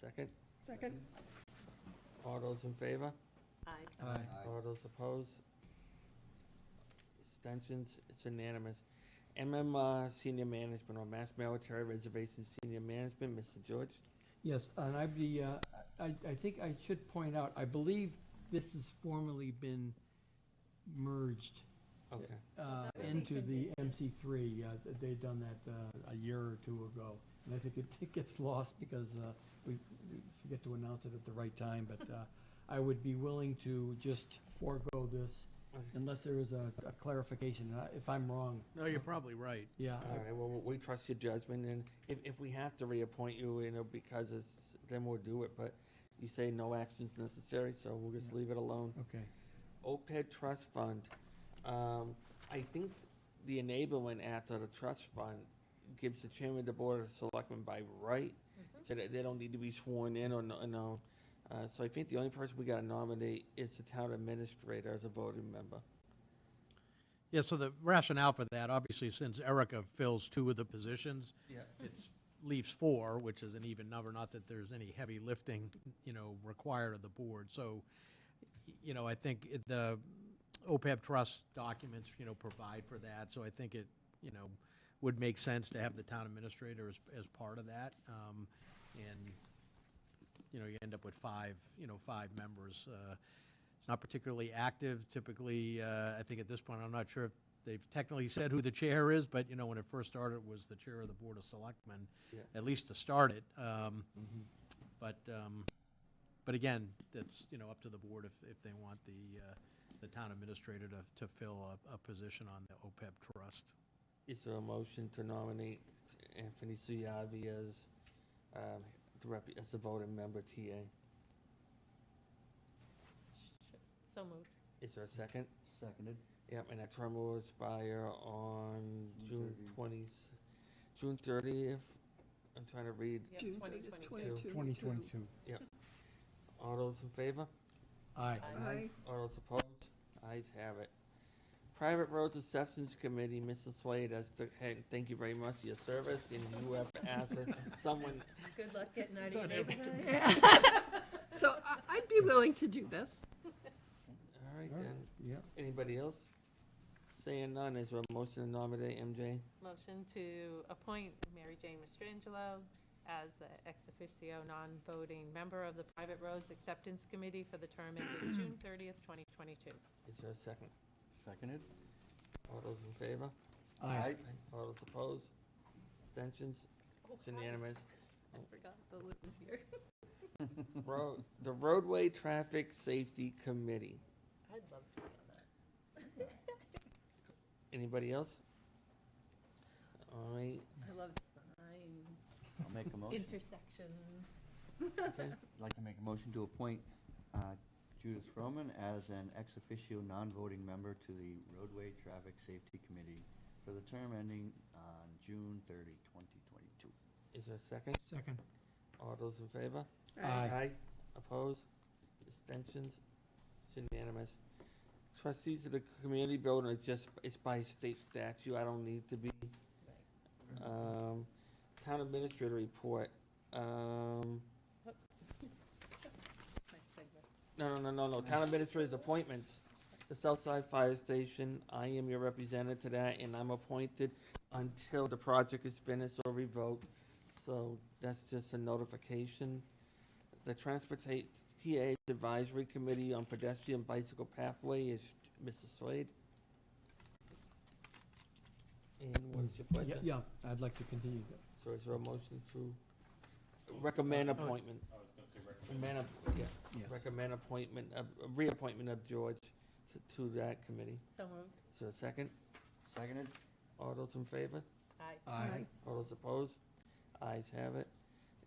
second? Second? All those in favor? Aye. Aye. All those opposed? Abstentions, it's unanimous. MMR Senior Management or Mass Military Reservation Senior Management, Mr. George? Yes, and I'd be, uh, I, I think I should point out, I believe this has formerly been merged Okay, uh, That would be into good. the MC3. Uh, th- They'd done that uh, a year or two ago. And I think it- it gets lost because uh, we we forget to announce it at the right time, but uh, I would be willing to just forego this unless there is a a clarification. And I- If I'm wrong, No, you're probably right. yeah, all right, well, we trust your judgment, and if, if we have to reappoint you, you know, because it's, then we'll do it, but you say no actions necessary, so we'll just leave it alone. okay. OPEB trust fund, um, I think the enablement act of the trust fund gives the chairman of the board of selectmen by right, so that they don't need to be sworn in or no, or no. Uh, so I think the only person we gotta nominate is the town administrator as a voting member. Yeah, so the rationale for that, obviously, since Erica fills two of the positions, Yeah. it leaves four, which is an even number, not that there's any heavy lifting, you know, required of the board. So, you know, I think it- the OPEB trust documents, you know, provide for that. So I think it, you know, would make sense to have the town administrator as, as part of that. Um, And, you know, you end up with five, you know, five members. Uh, It's not particularly active typically, uh, I think at this point, I'm not sure if they've technically said who the chair is, but, you know, when it first started, it was the chair of the Board of Selectmen, Yeah. at least to start it. Um, But, um, but again, that's, you know, up to the board if, if they want the, uh, the town administrator to, to fill a, a position on the OPEB trust. Is there a motion to nominate Anthony Ciavi as, um, the rep, as a voting member TA? So moved. Is there a second? Seconded. Yep, and that term will expire on June June twentieth, June thirtieth. I'm trying to read. Yep, June 2022. 2022. All those in favor? Aye. Aye. All those opposed? Ayes have it. Private Roads Acceptance Committee, Mrs. Slade, as the head, thank you very much for your service, and you have asked someone, Good luck getting out of your on every neighborhood. So I- I'd be willing to do this. all right All right. then. Yeah, Anybody else? Saying none, is there a motion to nominate MJ? Motion to appoint Mary Jane Mastrangelo as the ex officio non-voting member of the Private Roads Acceptance Committee for the term ending June 30th, 2022. Is there a second? Seconded. All those in favor? aye. All those opposed? Abstentions? It's unanimous. I forgot the Liz is here. Road, the roadway traffic safety committee. I'd love to be on that. Anybody else? All right, I love signs, I'll make a motion. intersections. okay. I'd like to make a motion to appoint uh, Judith Roman as an ex officio non-voting member to the Roadway Traffic Safety Committee for the term ending on June 30, 2022. Is there a second? Second. All those in favor? Aye. Opposed? Abstentions? It's unanimous. Trustees of the community building are just, it's by state statute, I don't need to be. Um, town administrator report, um, My segment. no, no, no, no, no, town administrator's appointments. The Southside Fire Station, I am your representative to that, and I'm appointed until the project is finished or revoked. So that's just a notification. The Transportate TA Advisory Committee on Pedestrian Bicycle Pathway is Mrs. Slade. And what's your Yeah, pleasure? Yeah, I'd like to continue that. So is there a motion to recommend appointment? Oh, I was gonna say recommend. yeah, Yes. recommend appointment, of- uh, reappointment of George to, to that committee. So moved. Is there a second? Seconded. All those in favor? Aye. Aye. All those opposed? Ayes have it.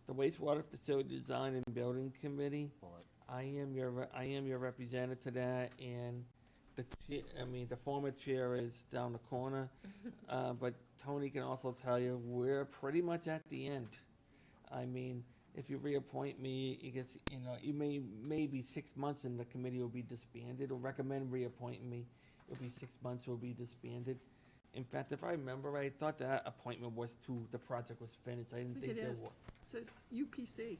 The wastewater facility design and building committee, Bullet. I am your, re- I am your representative to that, and the, chair- I mean, the former chair is down the corner, uh, but Tony can also tell you, we're pretty much at the end. I mean, if you reappoint me, it gets, you know, it may, maybe six months and the committee will be disbanded, or recommend reappointing me, it'll be six months, it'll be disbanded. In fact, if I remember right, I thought that appointment was to, the project was finished, I I didn't think think it there is. was. Says UPC.